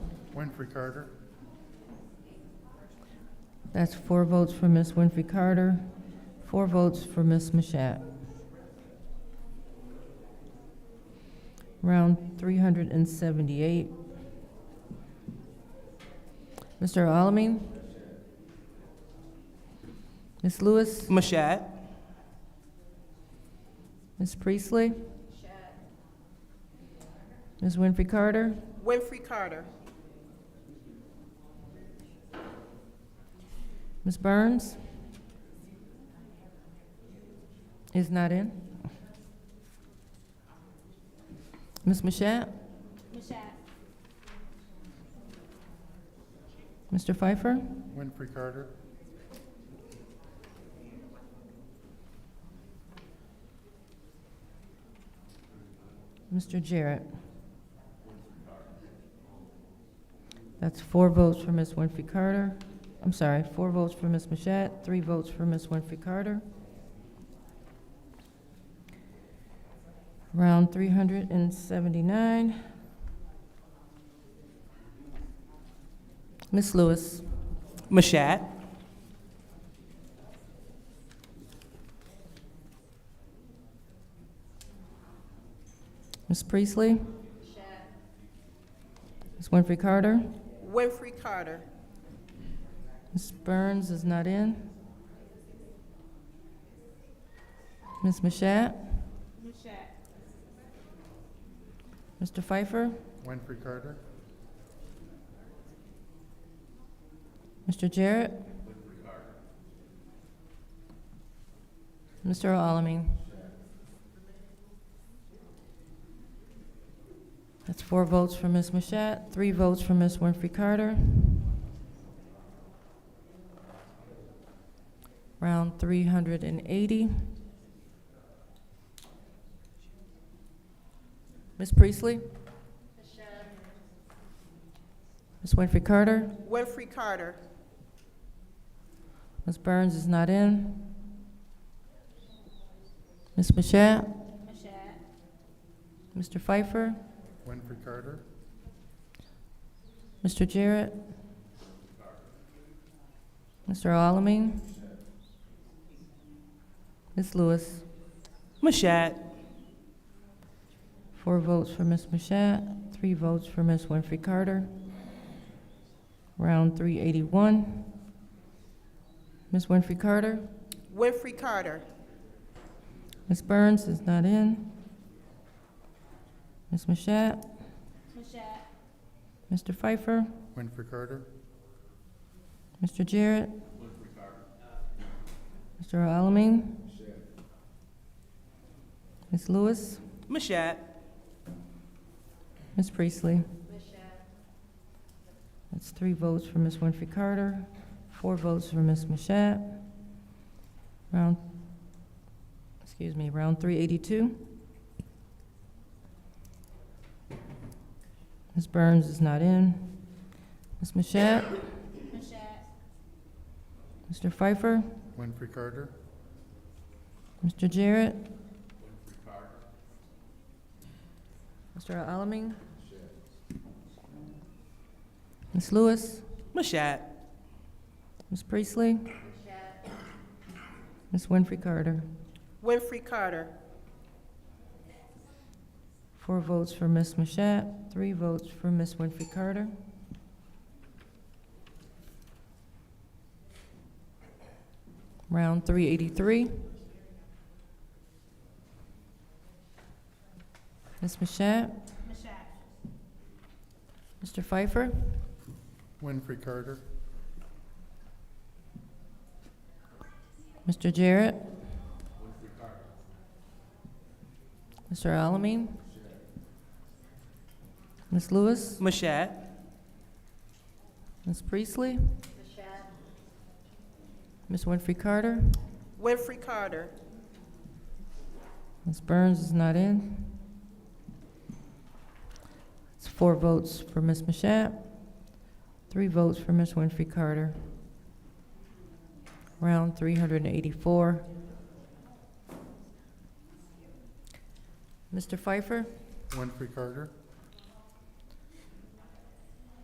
Winfrey Carter. That's four votes for Ms. Winfrey Carter, four votes for Ms. Mashat. Round 378. Mr. Alamin? Ms. Lewis? Mashat. Ms. Priestley? Ms. Winfrey Carter? Winfrey Carter. Ms. Burns? Is not in. Ms. Mashat? Mr. Pfeiffer? Winfrey Carter. Mr. Jarrett? That's four votes for Ms. Winfrey Carter. I'm sorry, four votes for Ms. Mashat, three votes for Ms. Winfrey Carter. Round three hundred and seventy-nine. Ms. Lewis? Mashat. Ms. Priestley? Ms. Winfrey Carter? Winfrey Carter. Ms. Burns is not in. Ms. Mashat? Mr. Pfeiffer? Winfrey Carter. Mr. Jarrett? Mr. Alamin? That's four votes for Ms. Mashat, three votes for Ms. Winfrey Carter. Round three hundred and eighty. Ms. Priestley? Ms. Winfrey Carter? Winfrey Carter. Ms. Burns is not in. Ms. Mashat? Mr. Pfeiffer? Winfrey Carter. Mr. Jarrett? Mr. Alamin? Ms. Lewis? Mashat. Four votes for Ms. Mashat, three votes for Ms. Winfrey Carter. Round 381. Ms. Winfrey Carter? Winfrey Carter. Ms. Burns is not in. Ms. Mashat? Mr. Pfeiffer? Winfrey Carter. Mr. Jarrett? Mr. Alamin? Ms. Lewis? Mashat. Ms. Priestley? That's three votes for Ms. Winfrey Carter, four votes for Ms. Mashat. Round, excuse me, round three eighty-two. Ms. Burns is not in. Ms. Mashat? Mr. Pfeiffer? Winfrey Carter. Mr. Jarrett? Mr. Alamin? Ms. Lewis? Mashat. Ms. Priestley? Ms. Winfrey Carter? Winfrey Carter. Four votes for Ms. Mashat, three votes for Ms. Winfrey Carter. Round three eighty-three. Ms. Mashat? Mr. Pfeiffer? Winfrey Carter. Mr. Jarrett? Mr. Alamin? Ms. Lewis? Mashat. Ms. Priestley? Ms. Winfrey Carter? Winfrey Carter. Ms. Burns is not in. It's four votes for Ms. Mashat, three votes for Ms. Winfrey Carter. Round three hundred and eighty-four. Mr. Pfeiffer? Winfrey Carter.